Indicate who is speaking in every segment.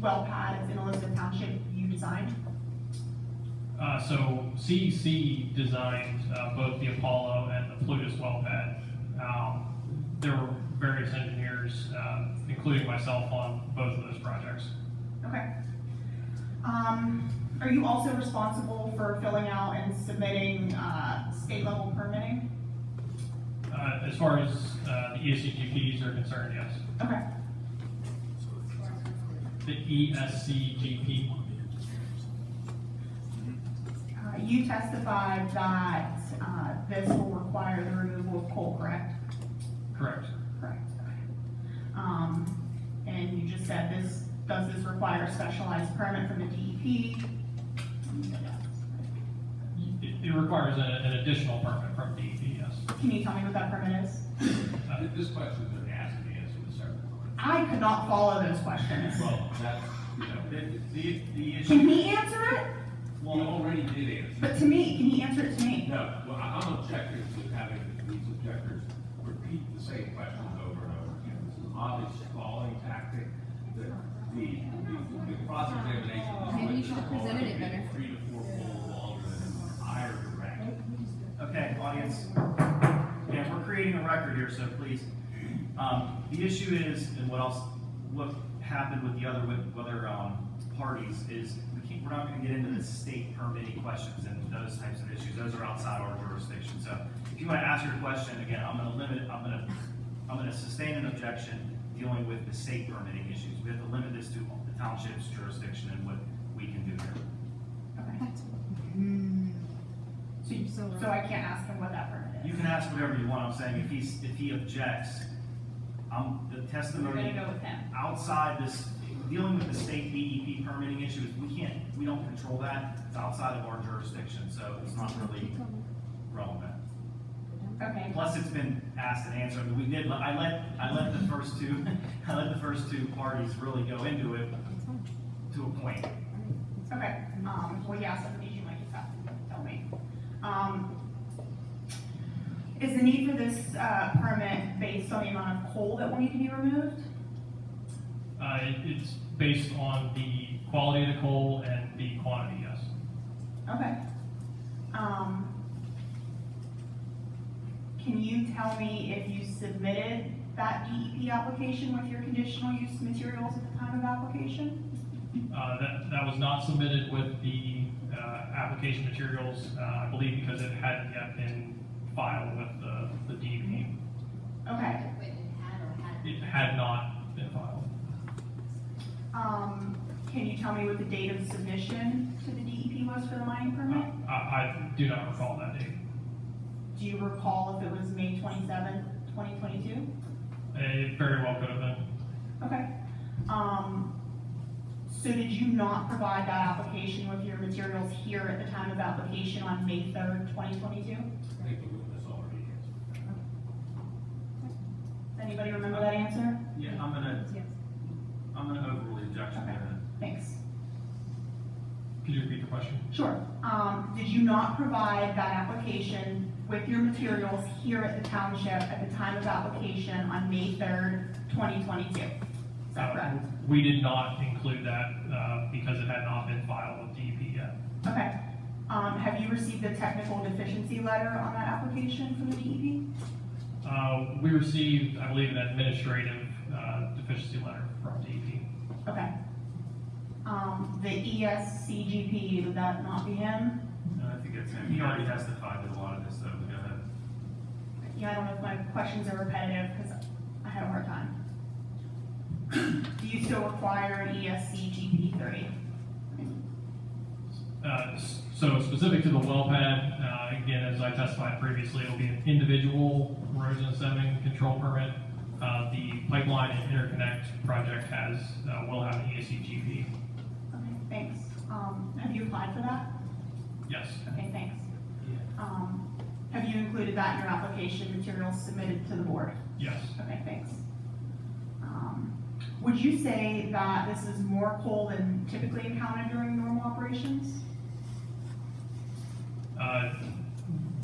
Speaker 1: well pads in Elizabeth Township you designed?
Speaker 2: Uh, so CEC designed, uh, both the Apollo and the Plutus well pad. Um, there were various engineers, uh, including myself on both of those projects.
Speaker 1: Okay. Um, are you also responsible for filling out and submitting, uh, state level permitting?
Speaker 2: Uh, as far as, uh, the ESCGPs are concerned, yes.
Speaker 1: Okay,
Speaker 2: The E ESCGP,
Speaker 1: uh, you testified that, uh, this will require the removal of coal, correct?
Speaker 2: correct.
Speaker 1: Correct. Okay. Um, and you just said this, does this require a specialized permit from the E DEP?
Speaker 2: It, it requires a- an additional permit from E DEP, yes.
Speaker 1: Can you tell me what that permit is?
Speaker 2: Uh,
Speaker 3: This question has been asked and answered several times.
Speaker 1: I could not follow those questions.
Speaker 3: Well, that's, you know, the, the, the
Speaker 1: Can
Speaker 2: Uh,
Speaker 3: issue,
Speaker 1: he answer it?
Speaker 3: well, you already did answer.
Speaker 1: But to me, can he answer it to me?
Speaker 3: No, well, I- I'm objecting to having these objectors repeat the same questions over and over again. This is an obvious stalling tactic. The, the, the- the cross-examination. of
Speaker 4: Maybe you should
Speaker 3: witness
Speaker 4: present it
Speaker 3: already
Speaker 4: better.
Speaker 3: Three to four fold longer than an entire direct.
Speaker 5: Okay, audience, yeah, we're creating a record here, so please. Um, the issue is, and what else, what happened with the other, with other, um, parties is, we can't, we're not gonna get into the state permitting questions and those types of issues, those are outside our jurisdiction, so if you wanna ask your question, again, I'm gonna limit, I'm gonna, I'm gonna sustain an objection dealing with the state permitting issues, we have to limit this to the township's jurisdiction and what we can do here.
Speaker 1: Okay. So, you-
Speaker 4: So-
Speaker 1: so I can't ask him what that permit
Speaker 5: You
Speaker 1: is?
Speaker 5: can ask whatever you want, I'm saying, if he's, if he objects, um, the
Speaker 1: We're gonna
Speaker 5: testimony
Speaker 1: go with him.
Speaker 5: outside this, dealing with the state DEP permitting issues, we can't, we don't control that, it's outside of our jurisdiction, so it's not really relevant.
Speaker 1: Okay,
Speaker 5: Plus, it's been asked and answered, we did, I let, I let the first two, I let the first two parties really go into it to a point.
Speaker 1: okay, um, well, yeah, somebody you might just have to tell me. Um, is the need for this, uh, permit based on the amount of coal that will need to be removed?
Speaker 2: Uh, it- it's based on the quality of the coal and the quantity, yes.
Speaker 1: Okay. Um, can you tell me if you submitted that DEP application with your conditional use materials at the time of application?
Speaker 2: Uh, that, that was not submitted with the, uh, application materials, uh, I believe because it hadn't yet been filed with the, the DEP.
Speaker 1: Okay,
Speaker 2: It had not been filed.
Speaker 1: um, can you tell me what the date of submission to the DEP was for the mining
Speaker 2: Uh,
Speaker 1: permit?
Speaker 2: I, I do not recall that date.
Speaker 1: Do you recall if it was May twenty-seventh, twenty twenty-two?
Speaker 2: It very well could have been.
Speaker 1: Okay. Um, so did you not provide that application with your materials here at the time of application on May third, twenty twenty-two?
Speaker 3: I think the witness already answered.
Speaker 1: Does anybody remember that answer?
Speaker 5: Yeah, I'm gonna, I'm gonna overrule the objection there.
Speaker 1: Thanks.
Speaker 2: Could you repeat the question?
Speaker 1: Sure. Um, did you not provide that application with your materials here at the township at the time of application on May third, twenty twenty-two? Is that correct?
Speaker 2: Uh, We did not include that, uh, because it had not been filed with DEP yet.
Speaker 1: Okay. Um, have you received a technical deficiency letter on that application from the E DEP?
Speaker 2: Uh, we received, I believe, an administrative, uh, deficiency letter from DEP.
Speaker 1: Okay. Um, the ESCGP, would that not be him?
Speaker 5: No, I think it's, he already testified to a lot of this, so go ahead.
Speaker 1: Yeah, I don't know if my questions are repetitive because I had a hard time. Do you still require E an ESC GP three?
Speaker 2: Uh, So specific to the well pad, uh, again, as I testified previously, it'll be an individual erosion and sediment control permit. Uh, The pipeline and interconnect project has, uh, will have an ESCGP,
Speaker 1: Okay, thanks. Um, have you applied for that?
Speaker 2: yes.
Speaker 1: Okay, thanks. Um, have you included that in your application materials submitted to the board?
Speaker 2: Yes,
Speaker 1: Okay, thanks. Um, Would you say that this is more coal than typically encountered during normal operations?
Speaker 2: Uh,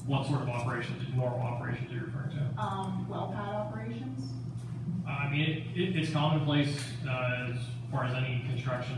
Speaker 2: what sort of operations, normal operations are you referring to?
Speaker 1: Um, well pad operations?
Speaker 2: I mean, it, it- it's commonplace, uh, as far as any construction